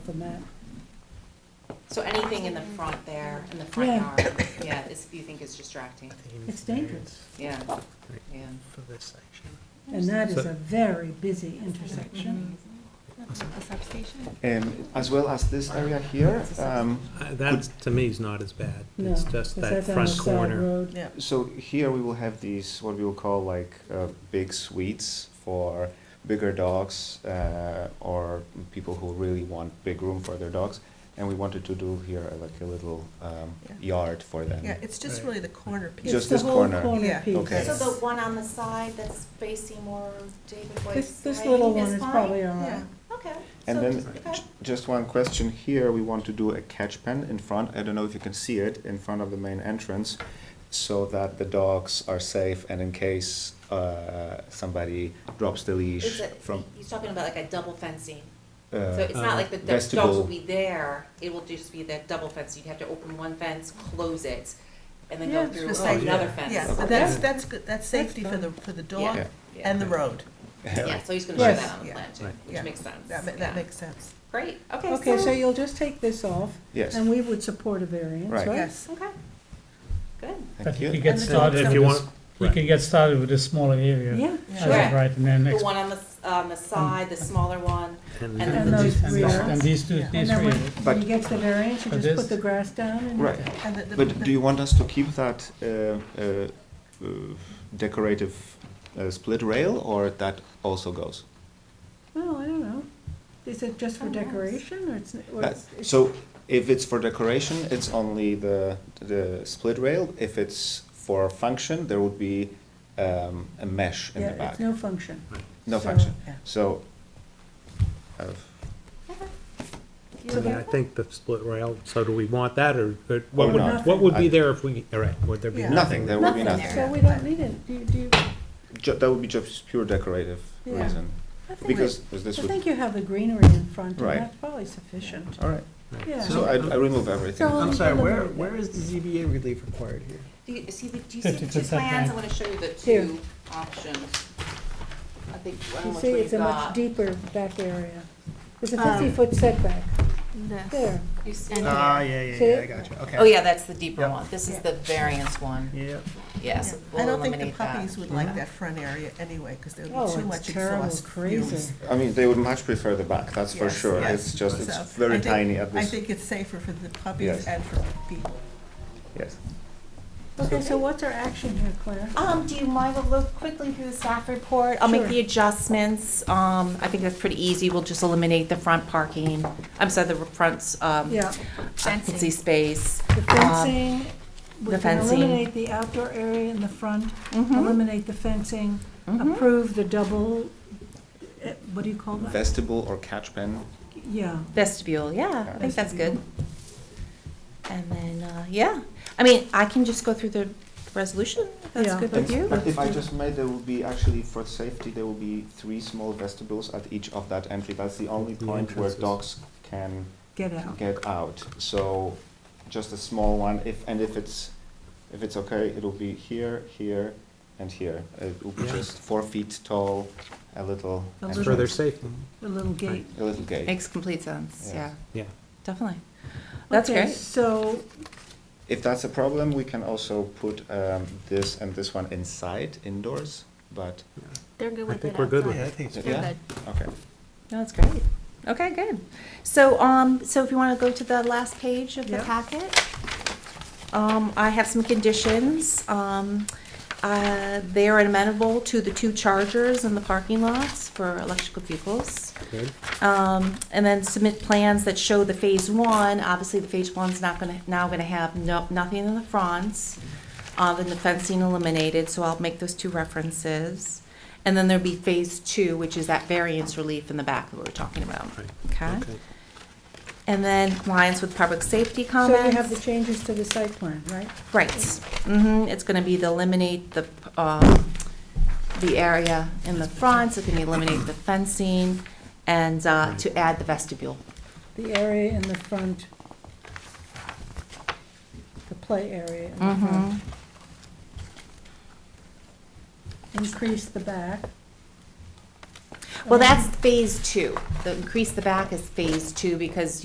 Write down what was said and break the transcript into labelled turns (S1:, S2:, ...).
S1: than that.
S2: So anything in the front there, in the front
S1: Yeah.
S2: yard, yeah, is, you think is distracting,
S1: It's dangerous.
S2: yeah, yeah.
S3: For this section.
S1: And that is
S3: So-
S1: a very busy intersection.
S4: Mm-hmm. A substation?
S5: Um, as well as this area here, um,
S3: Uh, That, to me, is not as bad.
S1: No,
S3: It's just
S1: 'cause
S3: that
S1: that's on the
S3: front
S1: side
S3: corner.
S1: road.
S4: Yeah.
S5: so here we will have these, what we will call like, uh, big suites for bigger dogs, uh, or people who really want big room for their dogs. And we wanted to do here uh, like a little, um,
S4: Yeah.
S5: yard for them.
S4: Yeah, it's just
S3: Right.
S4: really the corner
S1: It's
S4: piece.
S5: Just
S1: the
S5: this
S1: whole
S5: corner.
S4: Yeah.
S1: piece.
S5: Okay.
S2: So the one on the side that's facing more David
S1: This,
S2: White's
S1: this
S2: way
S1: little one is
S2: fine?
S1: probably all right.
S4: Yeah.
S2: Okay.
S5: And
S2: so-
S5: then
S2: okay.
S5: j- just one question here, we want to do a catch pen in front, I don't know if you can see it, in front of the main entrance, so that the dogs are safe and in case uh, somebody drops the
S2: It's
S5: leash
S2: a,
S5: from.
S2: he's talking about like a double fencing,
S5: uh,
S2: so it's not like the do- dogs
S5: vestibule.
S2: will be there, it will just be that double fence, you'd have to open one fence, close it, and then
S1: Yeah,
S2: go
S1: it's
S2: through
S4: the same.
S2: another
S3: Yeah.
S2: fence.
S4: Yeah,
S5: Okay.
S4: but that's, that's good, that's safety for the, for the dog
S2: Yeah.
S4: and the road.
S2: Yeah, so he's gonna show
S1: Yes.
S2: that on the plan too,
S3: Right.
S2: which
S4: Yeah.
S2: makes sense.
S4: That, ma-
S2: Yeah.
S4: that makes sense.
S2: Great, okay,
S1: Okay, so
S2: so,
S1: you'll just take this off,
S5: Yes,
S1: and we would support a variance,
S5: Right.
S1: right?
S4: Yes.
S2: okay, good.
S6: But
S5: thank
S6: you could
S5: you.
S6: get
S4: And the
S6: started
S4: dogs
S3: If
S6: with
S3: you
S6: this,
S3: want,
S6: you could get started with a smaller area.
S1: Yeah,
S4: Yeah.
S6: as
S1: sure.
S2: Sure.
S6: of Right, and then
S2: The
S6: next.
S2: one on the, s- on the side, the smaller one,
S3: Mm-hmm. and
S2: and
S1: And
S2: then the
S1: those
S2: two
S6: and
S1: rear.
S2: small
S6: this- And
S2: ones.
S6: these two,
S4: And
S1: And
S6: these
S1: then
S6: three.
S1: when, when you get to the variance, you
S6: But
S1: just put
S6: this-
S1: the grass down and.
S5: Right,
S4: And the- the-
S5: but
S4: the-
S5: do you want us to keep that uh, uh, uh, decorative uh, split rail, or that also goes?
S1: Well, Oh, I don't know. Is it just for
S2: Oh, nice.
S1: decoration, or it's? or
S5: That-
S1: it's- it's-
S5: So if it's for decoration, it's only the, the split rail. If it's for function, there would be um, a mesh in the
S1: Yeah,
S5: back.
S1: it's no function.
S5: No
S1: so-
S5: function.
S4: Yeah.
S5: So, uh, I've-
S3: I mean, I think the split rail, so do we want that, or, or
S5: Or
S3: what would,
S1: not.
S3: what would be
S5: I-
S3: there if we, all right, would there be?
S4: Yeah.
S5: nothing, there would be
S1: Nothing,
S5: nothing.
S1: so we don't need it. Do you, do you,
S5: Ju- That would be just pure decorative
S1: Yeah.
S5: reason.
S1: I think,
S5: Because
S1: I
S5: this would,
S1: think you have the greenery in front, and
S5: Right.
S1: that's probably sufficient.
S5: all right.
S3: Right.
S1: Yeah.
S5: So I, I remove
S1: So-
S5: everything.
S7: I'm sorry, where, where is the ZBA relief required here?
S2: Do you see the, do you see the two
S6: 50%
S2: plans? I
S6: back.
S2: wanna show you the
S1: Here.
S2: two options. I think, I
S1: You
S2: don't know which
S1: see,
S2: one
S1: it's
S2: you've
S1: a much
S2: got.
S1: deeper back area. There's a
S2: Uh,
S7: Um,
S1: fifty-foot setback, there.
S2: You see
S7: Oh,
S2: it
S7: yeah,
S2: there?
S7: yeah,
S1: See
S7: yeah,
S1: it?
S7: I got you,
S2: Oh,
S7: okay.
S2: yeah, that's the deeper
S7: Yeah.
S2: one. This is the
S4: Yeah.
S2: variance one,
S7: Yeah.
S2: yes.
S4: Yeah.
S2: we'll
S4: I don't think the
S2: eliminate that.
S4: puppies would like that front area anyway, because there would
S1: Oh,
S4: be too
S1: it's
S4: much
S1: terrible,
S4: exhaust
S1: crazy.
S4: fumes.
S5: I mean, they would much prefer the back, that's for
S4: Yes,
S5: sure.
S4: yes.
S5: It's just,
S4: So,
S5: it's
S4: I
S5: very
S4: think-
S5: tiny at
S4: I
S5: this,
S4: think it's safer for the
S5: Yes.
S4: puppies and for people.
S5: yes.
S1: Okay, so what's our action here, Claire?
S2: Um, do you mind to look quickly through the staff report? I'll make
S1: Sure.
S2: the adjustments. Um, I think that's pretty easy. We'll just eliminate the front parking. I'm sorry, the front, um,
S1: Yeah,
S2: occupancy space.
S1: the fencing, we
S2: Uh, the
S1: can
S2: fencing.
S1: eliminate the outdoor area in the front,
S2: Mhm.
S1: eliminate the fencing,
S2: Mhm.
S1: approve the double, eh, what do you call that?
S5: Vestibule or catch pen,
S1: Yeah,
S2: Vestibule, yeah, I think that's good.
S1: Vestibule.
S2: And then, uh, yeah, I mean, I can just go through the resolution, if that's
S1: Yeah.
S2: good
S5: But
S2: with you.
S5: but if I just made, there will be actually, for safety, there will be three small vestibules at each of that entry. That's the only
S3: The
S5: point where
S3: entrances.
S5: dogs can
S1: get out.
S5: get out. So just a small one, if, and if it's, if it's okay, it'll be here, here, and here. It will be
S3: Yeah.
S5: just four feet tall, a little.
S1: A
S5: entrance,
S3: For their safety,
S1: The little gate.
S5: A little gate.
S2: Makes complete sense,
S5: Yes.
S2: yeah,
S3: yeah.
S2: definitely. That's
S1: Okay,
S2: great.
S1: So,
S5: If that's a problem, we can also put um, this and this one inside, indoors, but,
S8: They're good
S3: I
S8: with it
S3: think we're good with
S7: Yeah, I
S3: it.
S7: think it's
S5: yeah, okay.
S2: No, that's great. Okay, good. So, um, so if you want to go to the last page of the
S1: Yep.
S2: packet, um, I have some conditions. Um, uh, they are amenable to the two chargers in the parking lots for electrical vehicles.
S3: Good.
S2: Um, and then submit plans that show the phase one, obviously the phase one's not gonna, now gonna have no, nothing in the fronts. Uh, then the fencing eliminated, so I'll make those two references. And then there'll be phase two, which is that variance relief in the back that we were talking about,
S3: Right.
S2: okay?
S3: Okay.
S2: And then compliance with public safety
S1: so
S2: comments.
S1: you have the changes to the site plan, right?
S2: Right, mm-hmm, it's gonna be the eliminate the, um, the area in the front, it's gonna eliminate the fencing, and, uh, to add the vestibule.
S1: The area in the front, the play area in the
S2: Mm-hmm.
S1: front. Increase the back.
S2: Well, that's phase two. The increase the back is phase two because